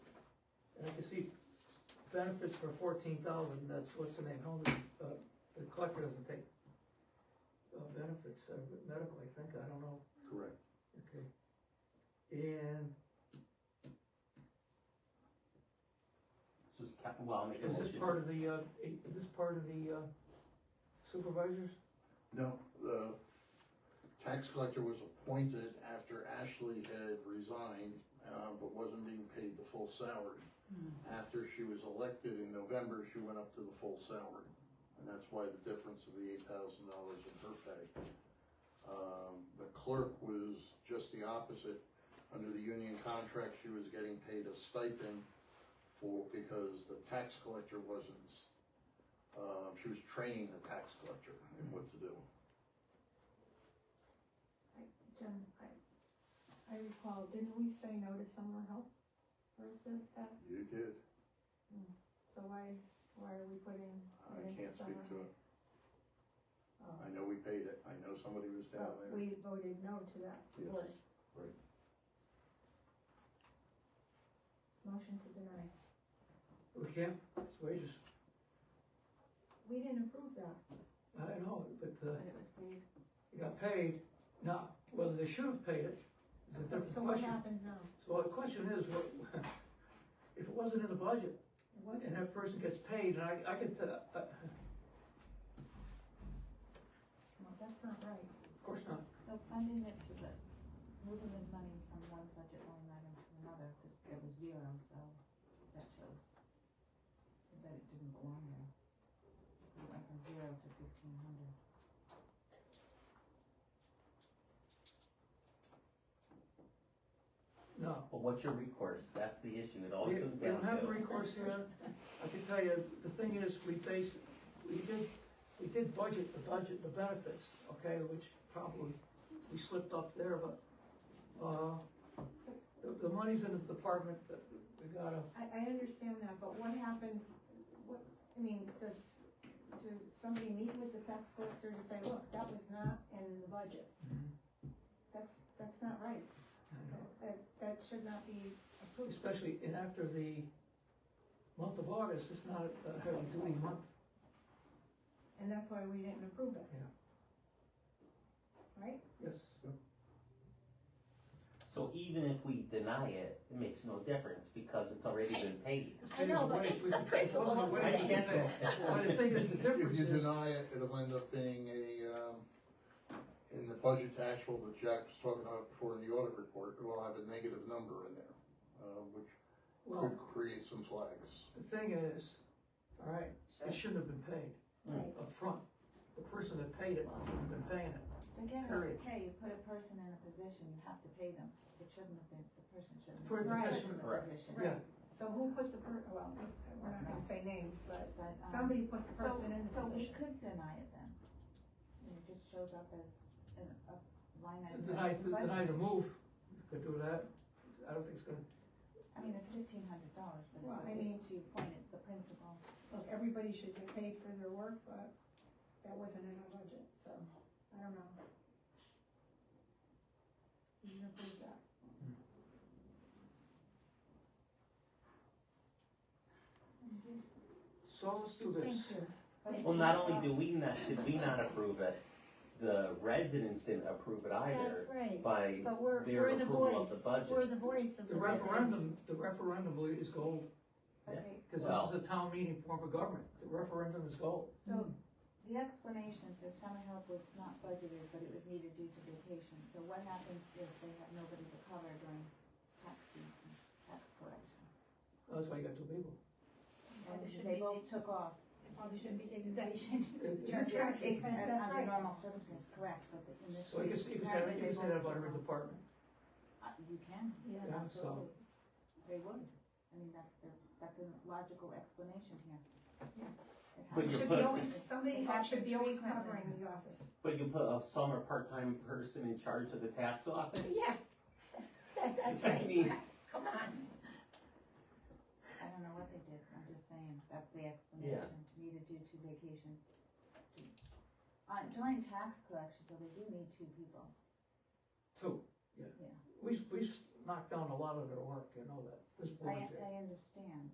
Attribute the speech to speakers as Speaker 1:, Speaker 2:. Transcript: Speaker 1: you see benefits for fourteen thousand, that's what's the name, how, uh, the collector doesn't take uh, benefits, uh, medical, I think, I don't know,
Speaker 2: Correct.
Speaker 1: okay. And
Speaker 3: This is cap, well, I'll make a
Speaker 1: is
Speaker 3: motion.
Speaker 1: this part of the, uh, eight- is this part of the, uh, supervisors?
Speaker 2: No, the tax collector was appointed after Ashley had resigned, uh, but wasn't being paid the full salary. After she was elected in November, she went up to the full salary, and that's why the difference of the eight thousand dollars in her pay. Um, the clerk was just the opposite. Under the union contract, she was getting paid a stipend for, because the tax collector wasn't, uh, she was training the tax collector in what to do.
Speaker 4: Jen, I, I recall, didn't we say no to summer help for the, that,
Speaker 2: You did.
Speaker 4: so why, why are we putting?
Speaker 2: I
Speaker 4: it into
Speaker 2: can't speak
Speaker 4: summer
Speaker 2: to
Speaker 4: help?
Speaker 2: it.
Speaker 4: Oh,
Speaker 2: I know we paid it. I know somebody was down
Speaker 4: but
Speaker 2: there.
Speaker 4: We voted no to that,
Speaker 2: Yes.
Speaker 4: Or
Speaker 2: Right.
Speaker 4: motion to deny,
Speaker 1: We can't, it's wages,
Speaker 4: we didn't approve that,
Speaker 1: I don't know, but, uh,
Speaker 4: but it was paid,
Speaker 1: they got paid, now, whether they should have paid it, is a different
Speaker 4: so what
Speaker 1: question.
Speaker 4: happened now?
Speaker 1: So the question is, what, if it wasn't in the budget,
Speaker 4: It wasn't,
Speaker 1: and that person gets paid, and I, I could, uh, uh,
Speaker 4: well, that's not right,
Speaker 1: of course not,
Speaker 5: So funding it to the, moving the money from one budget line item to another, because it was zero, so that shows that it didn't belong there. It went from zero to fifteen hundred.
Speaker 1: no.
Speaker 3: But what's your recourse? That's the issue. It all
Speaker 1: We,
Speaker 3: comes
Speaker 1: we
Speaker 3: down
Speaker 1: don't have a
Speaker 3: to.
Speaker 1: recourse here, I can tell you, the thing is, we base, we did, we did budget the budget, the benefits, okay, which probably, we slipped up there, but, uh, the, the money's in the department, but we gotta,
Speaker 4: I, I understand that, but what happens, what, I mean, does, does somebody meet with the tax collector and say, look, that was not in the budget?
Speaker 1: Mhm.
Speaker 4: That's, that's not right,
Speaker 2: Mm-hmm.
Speaker 4: that, that should not be approved.
Speaker 1: especially, and after the month of August, it's not a heavy duty month.
Speaker 4: And that's why we didn't approve it. Right?
Speaker 1: Yes.
Speaker 3: So even if we deny it, it makes no difference because it's already been paid.
Speaker 1: I know, but it's the principle of
Speaker 3: I get that.
Speaker 1: Well, the thing is, the
Speaker 2: If
Speaker 1: difference
Speaker 2: you
Speaker 1: is,
Speaker 2: deny it, it'll end up being a, um, in the budget to actual that Jack was talking about before in the audit report, it will have a negative number in there, uh, which
Speaker 1: well,
Speaker 2: could create some flags.
Speaker 1: the thing is, all right, it shouldn't have been paid
Speaker 4: Right.
Speaker 1: up front. The person that paid it shouldn't have been paying it.
Speaker 5: Again,
Speaker 1: Period.
Speaker 5: okay, you put a person in a position, you have to pay them. It shouldn't have been, the person shouldn't
Speaker 1: For
Speaker 5: have
Speaker 1: the
Speaker 5: been put
Speaker 1: person,
Speaker 5: in the
Speaker 3: correct.
Speaker 5: position.
Speaker 1: Yeah.
Speaker 4: So who put the per, well, we're not gonna say names, but
Speaker 5: But, um,
Speaker 4: somebody put the
Speaker 5: so,
Speaker 4: person in the
Speaker 5: so we
Speaker 4: position.
Speaker 5: could deny it then. And It just shows up as an, a line item.
Speaker 1: Deny,
Speaker 5: in the budget.
Speaker 1: deny the move, you could do that. I don't think it's gonna,
Speaker 5: I mean, it's fifteen hundred dollars, but
Speaker 4: Well, I
Speaker 5: I
Speaker 4: mean-
Speaker 5: mean, to your point, it's the principle.
Speaker 4: Look, everybody should get paid for their work, but that wasn't in our budget, so, I don't know. You didn't approve that.
Speaker 1: so let's do this.
Speaker 4: Thank you.
Speaker 5: But it
Speaker 3: Well, not
Speaker 5: should-
Speaker 3: only do we not, did we not approve it, the residents didn't approve it either
Speaker 6: That's right,
Speaker 3: by
Speaker 6: but we're,
Speaker 3: their
Speaker 6: we're the
Speaker 3: approval
Speaker 6: voice,
Speaker 3: of the budget.
Speaker 6: we're the voice of
Speaker 1: The
Speaker 6: the residents.
Speaker 1: referendum, the referendum is gold,
Speaker 5: Okay,
Speaker 1: because
Speaker 3: Well-
Speaker 1: this is a town meeting form of government. The referendum is gold.
Speaker 5: so the explanation says summer help was not budgeted, but it was needed due to vacation. So what happens if they have nobody to cover during tax season, tax collection?
Speaker 1: That's why you got two people.
Speaker 5: And
Speaker 6: Well, it should
Speaker 5: they
Speaker 6: be-
Speaker 5: both took off.
Speaker 6: Probably shouldn't be taking vacation.
Speaker 1: It-
Speaker 4: Your
Speaker 1: it-
Speaker 4: tax exempt, that's
Speaker 5: Under
Speaker 4: right.
Speaker 5: normal circumstances, correct, but the- in this.
Speaker 1: So you can, say- you can say, that- you can say that about every department.
Speaker 5: Uh, You can,
Speaker 6: Yeah.
Speaker 1: Yeah, so,
Speaker 5: absolutely. They would. I mean, that's their, that's a logical explanation here. It
Speaker 3: But
Speaker 5: happens.
Speaker 3: you
Speaker 4: Should
Speaker 3: put-
Speaker 4: be always, somebody
Speaker 5: Option
Speaker 4: should be always
Speaker 5: three something.
Speaker 4: covering the office.
Speaker 3: But you put a summer part-time person in charge of the tax office?
Speaker 6: Yeah, that, that's
Speaker 3: I
Speaker 6: right,
Speaker 3: mean,
Speaker 6: come on.
Speaker 5: I don't know what they did, I'm just saying, that's the explanation, needed due to vacations. Uh, during tax collection, though, they do need two people.
Speaker 1: two, yeah.
Speaker 5: Yeah.
Speaker 1: We've, we've knocked down a lot of their work, you know that, this
Speaker 5: I,
Speaker 1: board did.
Speaker 5: I understand